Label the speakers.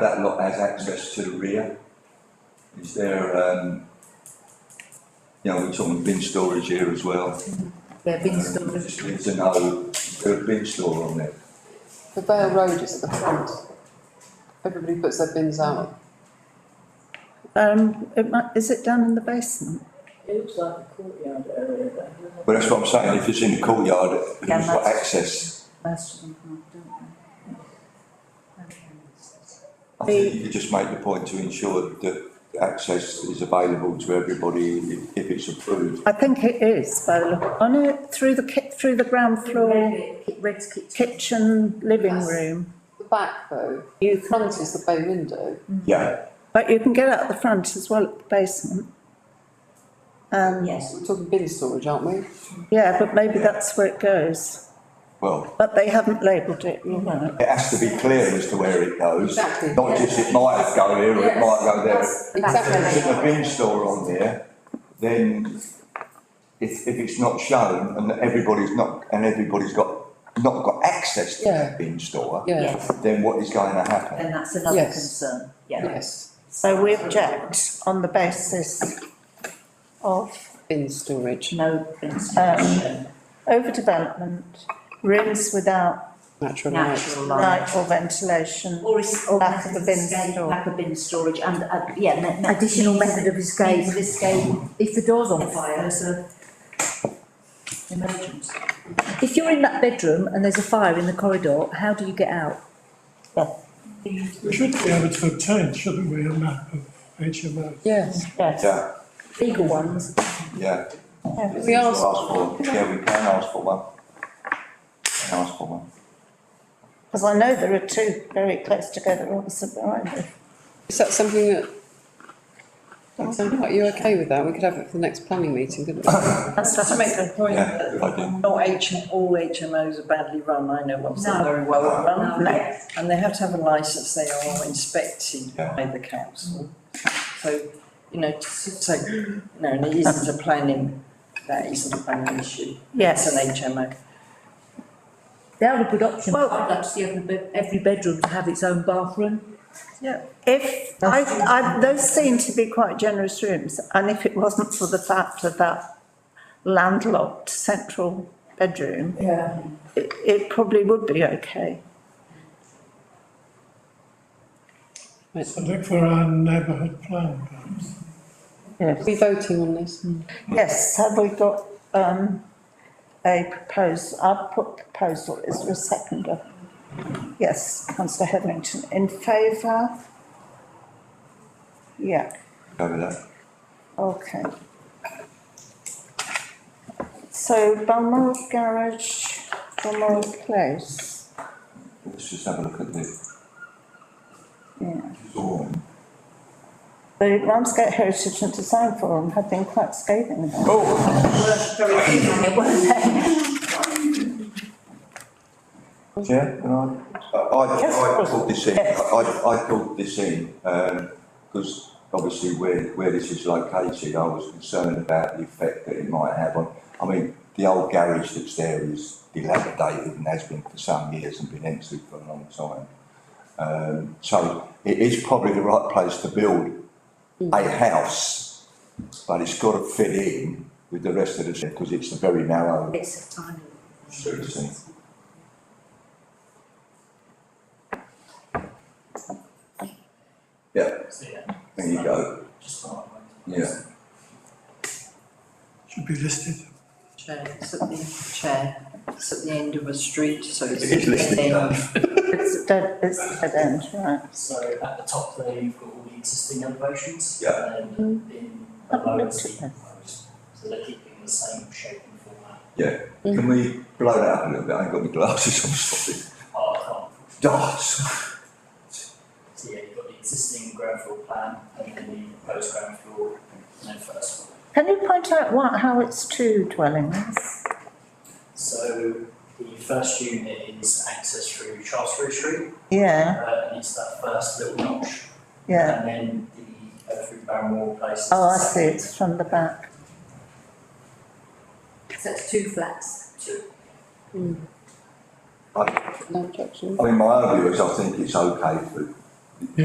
Speaker 1: that lot has access to the rear? Is there, um, you know, we're talking bin storage here as well.
Speaker 2: Yeah, bin
Speaker 1: Um,
Speaker 2: storage.
Speaker 1: Just need to know, is there a bin store on there?
Speaker 3: The Vale Road is at the front. Everybody puts their bins out.
Speaker 4: Um, it might, is it down in the basement?
Speaker 5: It looks like a courtyard area there.
Speaker 1: But that's what I'm saying, if it's in the courtyard, who's
Speaker 2: Yeah,
Speaker 1: got
Speaker 2: that's-
Speaker 1: access?
Speaker 4: Most of them have, don't
Speaker 1: I think you could just make the point to ensure that access is available to everybody if, if it's approved.
Speaker 4: they? I think it is by the look, on it, through the ki- through the ground floor,
Speaker 2: Red's kitchen.
Speaker 4: kitchen, living room.
Speaker 3: The back though, the front is the bay window.
Speaker 2: Mm-hmm.
Speaker 1: Yeah,
Speaker 4: But you can get out the front as well at the basement. Um,
Speaker 2: Yes.
Speaker 3: We're talking bin storage, aren't we?
Speaker 4: yeah, but maybe that's where it goes,
Speaker 1: well,
Speaker 4: but they haven't labelled it, you're right.
Speaker 1: it has to be clear as to where it goes.
Speaker 3: Exactly.
Speaker 1: Not just it might go here or it might go there. If there's a
Speaker 3: Exactly.
Speaker 1: bin store on there, then if, if it's not shown and everybody's not, and everybody's got, not got access to
Speaker 3: Yeah.
Speaker 1: that bin store,
Speaker 3: Yeah,
Speaker 2: Yes,
Speaker 1: then what is going to happen?
Speaker 2: then that's another
Speaker 3: Yes.
Speaker 2: concern, yeah.
Speaker 3: yes,
Speaker 4: So we object on the basis of
Speaker 3: bin storage,
Speaker 2: No
Speaker 6: Um,
Speaker 2: insulation,
Speaker 4: overdevelopment, rooms without
Speaker 3: natural light.
Speaker 2: natural light.
Speaker 4: light or ventilation.
Speaker 2: Or is, or
Speaker 4: Lack of a bin
Speaker 2: escape,
Speaker 4: store.
Speaker 2: lack of bin storage and, uh, yeah, ma- ma-
Speaker 6: Additional
Speaker 2: means-
Speaker 6: method of escape.
Speaker 2: means of escape
Speaker 6: If the door's on
Speaker 2: if
Speaker 6: fire,
Speaker 2: there's a emergency.
Speaker 6: if you're in that bedroom and there's a fire in the corridor, how do you get out?
Speaker 7: We should be able to obtain, shouldn't we, a map of HMOs?
Speaker 3: Yes,
Speaker 4: Yes.
Speaker 1: Yeah,
Speaker 6: Legal ones,
Speaker 1: yeah.
Speaker 4: Yeah.
Speaker 3: we asked-
Speaker 1: Ask for, yeah, we can ask for one. Can Ask for one.
Speaker 4: Because I know there are two very close together, opposite behind me.
Speaker 3: is that something that? That sound right? you okay with that? We could have it for the next planning meeting, couldn't we?
Speaker 4: That's
Speaker 8: Just to make the point
Speaker 1: Yeah,
Speaker 8: that
Speaker 1: I do.
Speaker 8: not H, all HMOs are badly run, I know one's not
Speaker 2: No.
Speaker 8: very well
Speaker 2: No.
Speaker 8: run. And they have to have a licence, they are inspected
Speaker 1: Yeah.
Speaker 8: by the council. So, you know, to say, you know, and it isn't a planning, that isn't a planning issue. It's
Speaker 4: Yes,
Speaker 8: an HMO.
Speaker 6: they are a good option.
Speaker 2: Well-
Speaker 6: I'd like to see every, be- every bedroom to have its own bathroom.
Speaker 4: if, I, I, those seem to be quite generous rooms, and if it wasn't for the fact of that landlocked central bedroom,
Speaker 5: Yeah.
Speaker 4: it, it probably would be okay.
Speaker 7: So look for our neighbourhood plan, perhaps.
Speaker 3: Are we voting on this?
Speaker 4: Yes, have we got, um, a proposal, I've put proposal, is there a seconder? Yes, councillor Hetherington, in favour? Yeah.
Speaker 1: Go with that.
Speaker 4: Okay. So Balmoral Garage, Balmoral Place,
Speaker 1: Let's just have a look at the
Speaker 4: yeah.
Speaker 1: drawing.
Speaker 4: The Ramsgate Heritage and Design Forum have been quite scathing about it.
Speaker 1: Oh, Chair, can I? I, Uh, I,
Speaker 4: Yes, of
Speaker 1: I
Speaker 4: course.
Speaker 1: pulled this in, I, I I pulled this in, um, because obviously where, where this is located, I was concerned about the effect that it might have on, I mean, the old garage that's there is dilapidated and has been for some years and been empty for a long time. Um, so it is probably the right place to build
Speaker 4: Hmm.
Speaker 1: a house, but it's got to fit in with the rest of the, because it's a very narrow
Speaker 2: It's a tiny.
Speaker 1: street, isn't it? Yeah, there you go. Yeah,
Speaker 7: should be listed.
Speaker 8: Chair, it's at the, chair, it's at the end of a street, so it's.
Speaker 1: It's listed,
Speaker 8: Yeah.
Speaker 4: It's a dead, it's a dead end, right?
Speaker 9: So at the top there, you've got all the existing elevations.
Speaker 1: Yeah.
Speaker 9: And then in the
Speaker 4: Haven't
Speaker 9: lower,
Speaker 4: looked at
Speaker 9: it's the proposed. So they're keeping the same shape and format.
Speaker 1: can we blow that up a little bit? I ain't got my glasses, I'm sorry.
Speaker 9: Oh, I can't.
Speaker 1: Darts.
Speaker 9: So yeah, you've got the existing ground floor plan and then the proposed ground floor and then first floor.
Speaker 4: Can you point out what, how it's two dwellings?
Speaker 9: So the first unit is access through Shaftesbury Street,
Speaker 4: Yeah,
Speaker 9: uh, and it's that first little notch.
Speaker 4: yeah.
Speaker 9: And then the, uh, through Barrymore Place. is
Speaker 4: Oh, I
Speaker 9: the
Speaker 4: see,
Speaker 9: second.
Speaker 4: it's from the back.
Speaker 2: So it's two flats.
Speaker 3: No objection.
Speaker 1: I mean, my own view is I think it's okay for